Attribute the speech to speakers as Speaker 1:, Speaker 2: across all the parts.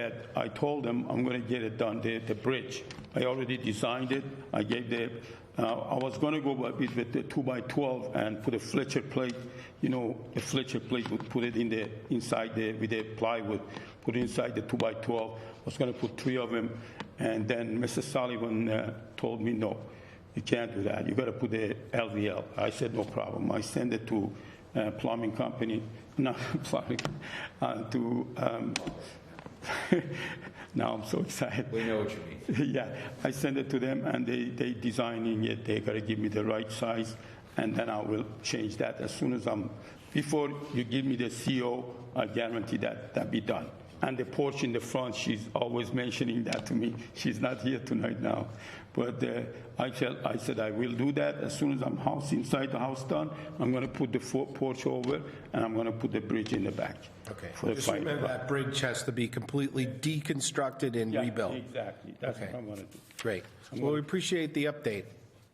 Speaker 1: that I told them I'm going to get it done, the, the bridge. I already designed it, I gave the, uh, I was going to go with with the two by 12 and put a Fletcher plate, you know, the Fletcher plate would put it in the, inside the, with the plywood, put it inside the two by 12. I was going to put three of them, and then Mr. Sullivan uh, told me, no, you can't do that, you got to put the LVL. I said, no problem, I send it to uh, plumbing company, not plumbing, uh, to, um, now I'm so excited.
Speaker 2: We know what you mean.
Speaker 1: Yeah, I send it to them and they, they designing it, they gotta give me the right size and then I will change that as soon as I'm, before you give me the CO, I guarantee that that be done. And the porch in the front, she's always mentioning that to me, she's not here tonight now. But uh, I tell, I said I will do that as soon as I'm house, inside the house done, I'm gonna put the fo- porch over and I'm gonna put the bridge in the back. for
Speaker 3: Okay,
Speaker 1: the
Speaker 3: just
Speaker 1: fire.
Speaker 3: remember that bridge has to be completely deconstructed and
Speaker 1: Yeah,
Speaker 3: rebuilt.
Speaker 1: Exactly, that's what
Speaker 3: Okay.
Speaker 1: I'm gonna do.
Speaker 3: Great. Well, we appreciate the update,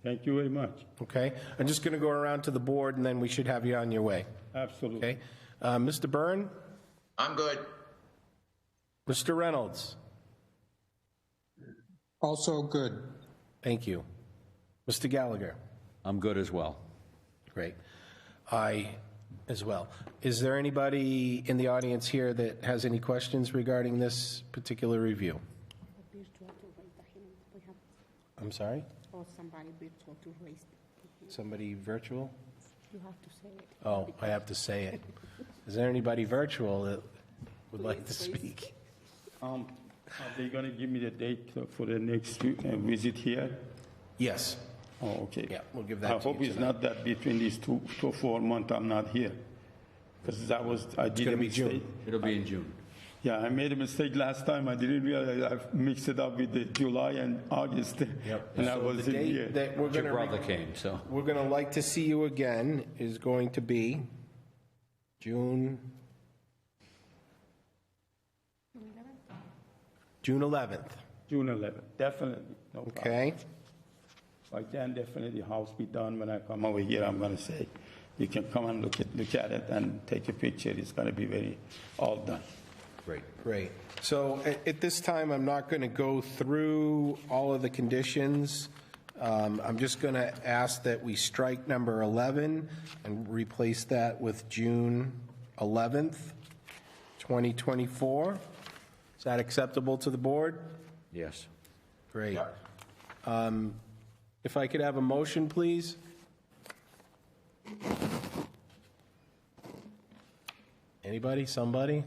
Speaker 1: Thank you very much,
Speaker 3: okay? I'm just going to go around to the board, and then we should have you on your way,
Speaker 1: absolutely.
Speaker 3: okay? Uh, Mr. Byrne,
Speaker 2: I'm good.
Speaker 3: Mr. Reynolds,
Speaker 4: Also good.
Speaker 3: thank you. Mr. Gallagher?
Speaker 5: I'm good as well.
Speaker 3: Great. I as well. Is there anybody in the audience here that has any questions regarding this particular review?
Speaker 6: virtual to raise the hand. We have,
Speaker 3: I'm sorry?
Speaker 6: or somebody virtual to raise.
Speaker 3: Somebody virtual?
Speaker 6: You have to say it.
Speaker 3: Oh, I have to say it. Is there anybody virtual that would like to speak?
Speaker 1: Um, Are they going to give me the date uh, for the next vi- uh, visit here?
Speaker 3: Yes.
Speaker 1: Oh, okay.
Speaker 3: Yeah, we'll give that
Speaker 1: I
Speaker 3: to
Speaker 1: hope
Speaker 3: you
Speaker 1: it's
Speaker 3: tonight.
Speaker 1: not that between these two, two, four months I'm not here. Because that was, I did a
Speaker 3: gonna be June.
Speaker 1: mistake.
Speaker 5: It'll be in June.
Speaker 1: Yeah, I made a mistake last time. I didn't realize I mixed it up with the July and August. And I
Speaker 3: So
Speaker 1: was in
Speaker 3: the date
Speaker 1: here.
Speaker 3: that we're
Speaker 5: Your
Speaker 3: gonna re-
Speaker 5: brother came, so.
Speaker 3: We're going to like to see you again is going to be June... June 11th,
Speaker 1: June 11th, definitely. No problem.
Speaker 3: okay?
Speaker 1: I can definitely house be done when I come over here, I'm gonna say. You can come and look at, look at it and take a picture. It's gonna be very, all done.
Speaker 5: Great.
Speaker 3: Great. So at, at this time, I'm not going to go through all of the conditions. Um, I'm just going to ask that we strike number 11 and replace that with June 11th, 2024. Is that acceptable to the board?
Speaker 5: Yes.
Speaker 3: Great. Um, If I could have a motion, please? Anybody, somebody?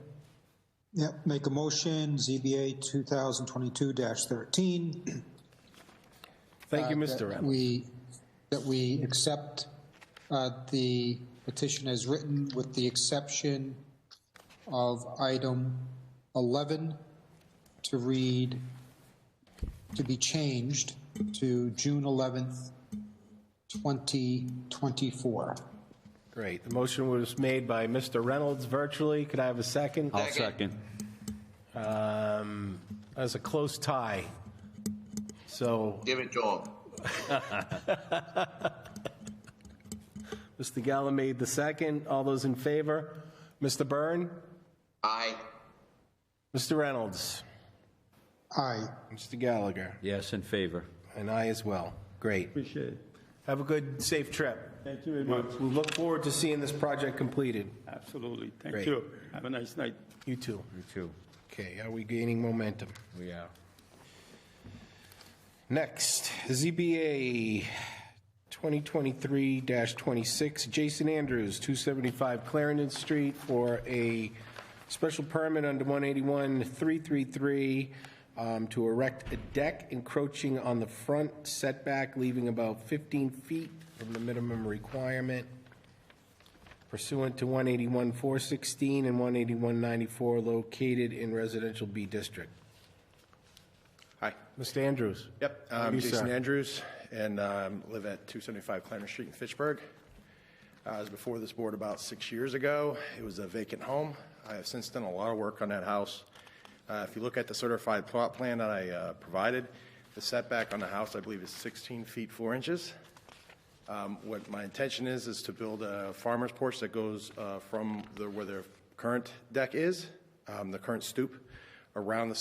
Speaker 4: Yep, make a motion, ZBA 2022-13.
Speaker 3: Thank you,
Speaker 4: uh,
Speaker 3: Mr.
Speaker 4: that
Speaker 3: Reynolds.
Speaker 4: We, that we accept uh, the petition as written with the exception of item 11 to read, to be changed to June 11th, 2024.
Speaker 3: Great. The motion was made by Mr. Reynolds virtually. Could I have a second?
Speaker 5: I'll second.
Speaker 3: Um, That was a close tie. So,
Speaker 2: Give it to him.
Speaker 3: Mr. Gallo made the second. All those in favor? Mr. Byrne?
Speaker 2: Aye.
Speaker 3: Mr. Reynolds?
Speaker 4: Aye.
Speaker 3: Mr. Gallagher?
Speaker 5: Yes, in favor.
Speaker 3: And I as well. Great.
Speaker 1: Appreciate it.
Speaker 3: Have a good, safe trip.
Speaker 1: Thank you very much.
Speaker 3: We look forward to seeing this project completed.
Speaker 1: Absolutely. Thank
Speaker 3: Great.
Speaker 1: you. Have a nice night.
Speaker 3: You too.
Speaker 5: You too.
Speaker 3: Okay, are we gaining momentum?
Speaker 5: We are.
Speaker 3: Next, ZBA 2023-26, Jason Andrews, 275 Clarendon Street, for a special permit under 181-333 um, to erect a deck encroaching on the front setback, leaving about 15 feet from the minimum requirement pursuant to 181-416 and 181-94, located in residential B district.
Speaker 7: Hi.
Speaker 3: Mr. Andrews?
Speaker 7: Yep,
Speaker 3: How are
Speaker 7: I'm
Speaker 3: you,
Speaker 7: Jason
Speaker 3: sir?
Speaker 7: Andrews, and um, live at 275 Clarendon Street in Fitchburg. I was before this board about six years ago. It was a vacant home. I have since done a lot of work on that house. Uh, If you look at the certified plot plan that I uh, provided, the setback on the house, I believe, is 16 feet 4 inches. Um, What my intention is, is to build a farmer's porch that goes uh, from the- where their current deck is, um, the current stoop, around the